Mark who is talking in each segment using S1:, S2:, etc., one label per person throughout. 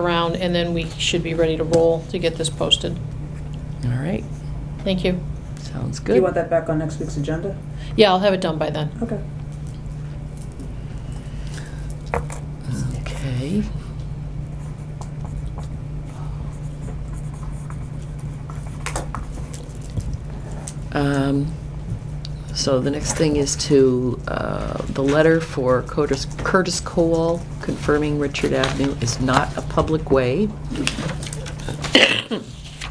S1: around, and then we should be ready to roll to get this posted.
S2: All right,
S1: Thank you.
S2: sounds
S3: Do you want
S2: good.
S3: that back on next week's agenda?
S1: Yeah, I'll have it done by then.
S3: Okay.
S2: Okay. Um, So the next thing is to, uh, the letter for Curtis Curtis Cowell confirming Richard Avenue is not a public way.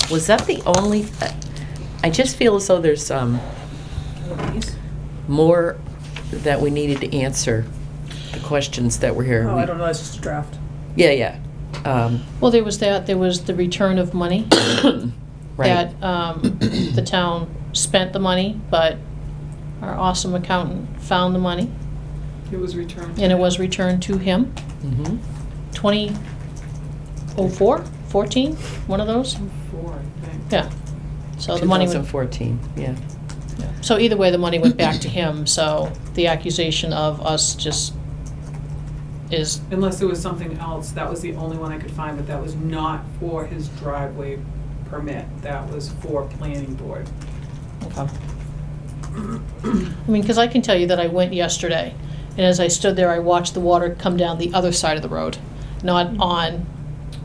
S2: Was that the only, I- I just feel as though there's um, more that we needed to answer, the questions that were here.
S3: Oh, I don't know, it's just a draft.
S2: Yeah, yeah. Um,
S1: Well, there was that, there was the return of money.
S2: Right.
S1: That um, the town spent the money, but our awesome accountant found the money,
S4: It was returned.
S1: and it was returned to him.
S2: Mhm.
S1: 2004, 14, one of those?
S4: Four, I think.
S1: Yeah. So the money went
S2: 2014, yeah.
S1: So either way, the money went back to him, so the accusation of us just is,
S4: Unless there was something else, that was the only one I could find, but that was not for his driveway permit. That was for planning board.
S1: okay. I mean, because I can tell you that I went yesterday, and as I stood there, I watched the water come down the other side of the road, not on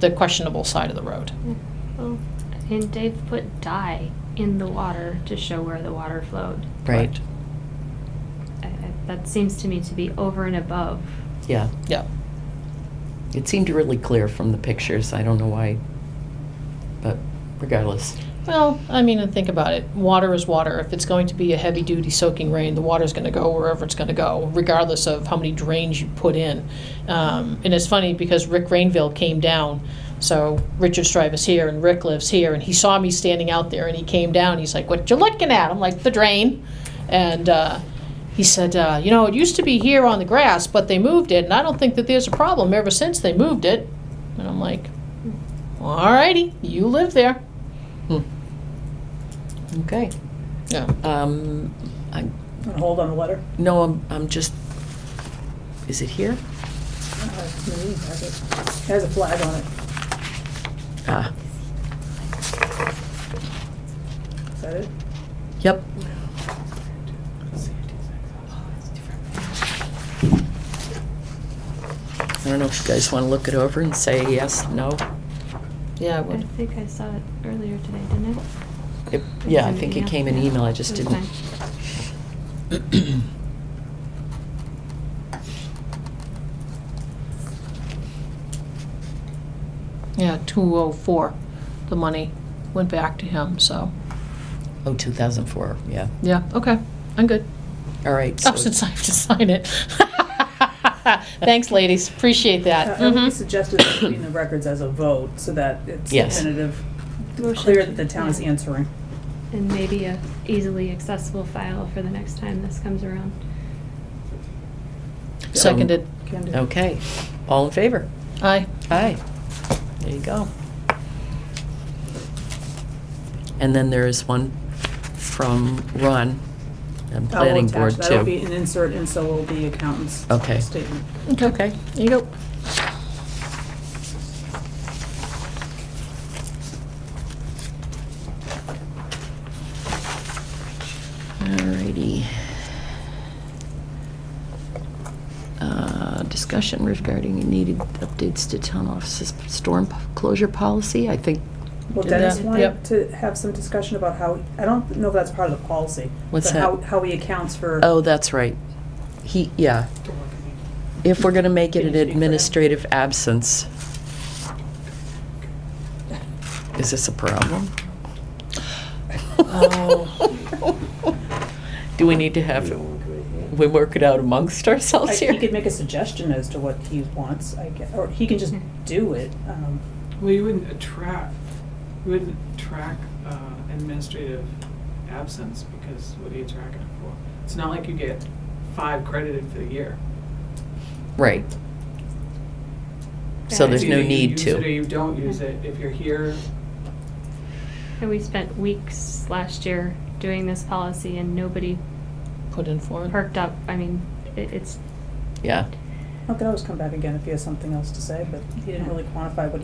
S1: the questionable side of the road.
S5: Oh, and they've put dye in the water to show where the water flowed.
S2: Right,
S5: I- I- That seems to me to be over and above.
S2: yeah.
S1: Yeah.
S2: It seemed really clear from the pictures. I don't know why, but regardless.
S1: Well, I mean, and think about it. Water is water. If it's going to be a heavy duty soaking rain, the water's going to go wherever it's going to go, regardless of how many drains you put in. Um, and it's funny because Rick Rainville came down. So Richard Strive is here and Rick lives here. And he saw me standing out there and he came down. He's like, What you looking at? I'm like, The drain. And uh, he said, uh, You know, it used to be here on the grass, but they moved it. And I don't think that there's a problem ever since they moved it. And I'm like, All righty, you live there.
S2: Hmm. Okay.
S1: Yeah.
S2: Um, I,
S3: And hold on the letter.
S2: no, I'm, I'm just, is it here?
S3: Uh, maybe it has it. It has a flag on it.
S2: Ah,
S3: Is that it?
S2: yep. I don't know if you guys want to look it over and say yes, no?
S1: Yeah, I
S5: I
S1: would.
S5: think I saw it earlier today, didn't I?
S2: It- Yeah, I think it came in email. I just
S5: It was
S2: didn't.
S5: fine.
S1: Yeah, 204, the money went back to him, so,
S2: Oh, 2004, yeah.
S1: yeah, okay, I'm good.
S2: All right.
S1: Oh,
S2: so-
S1: since I have to sign it. Thanks, ladies, appreciate that.
S3: Uh, I would be
S1: Mhm.
S3: suggested that it be in the records as a vote, so that it's
S2: Yes.
S3: definitive,
S5: Motion
S3: clear
S5: to-
S3: that the town is
S5: yeah.
S3: answering.
S5: And maybe a easily accessible file for the next time this comes around.
S1: Seconded,
S3: Can do.
S2: Okay. All in favor?
S3: um,
S1: aye.
S2: Aye. There you go. And then there is one from Ron and
S3: I will
S2: Planning
S3: attach-
S2: Board
S3: That'll be
S2: too.
S3: an insert, and so will the accountant's
S2: Okay.
S3: statement.
S2: Okay.
S1: There you go.
S2: Alrighty. Uh, Discussion regarding needed updates to town offices storm closure policy. I think,
S3: Well,
S1: Did
S3: Dennis
S1: that-
S3: wanted
S1: yep.
S3: to have some discussion about how, I don't know if that's part of the policy.
S2: What's
S3: but how-
S2: that?
S3: How he accounts for.
S2: oh, that's right. He, yeah.
S4: Don't look at me.
S2: If we're going to make it
S3: Can
S2: an
S3: you speak for him?
S2: administrative absence, is this a problem?
S3: Oh.
S2: Do we need to have, we work it out amongst
S3: I-
S2: ourselves
S3: He
S2: here?
S3: could make a suggestion as to what he wants, I guess, or he can just do it. um,
S4: Well, you wouldn't attract, you wouldn't track uh, administrative absence because what are you tracking it for? It's not like you get five credited for the year.
S2: Right. So there's no
S4: Either you
S2: need
S4: use
S2: to.
S4: it or you don't use it. If you're here,
S5: And we spent weeks last year doing this policy and nobody
S1: Put in for it.
S5: perked up. I mean, it- it's
S2: Yeah.
S3: I could always come back again if he has something else to say, but he didn't really quantify what he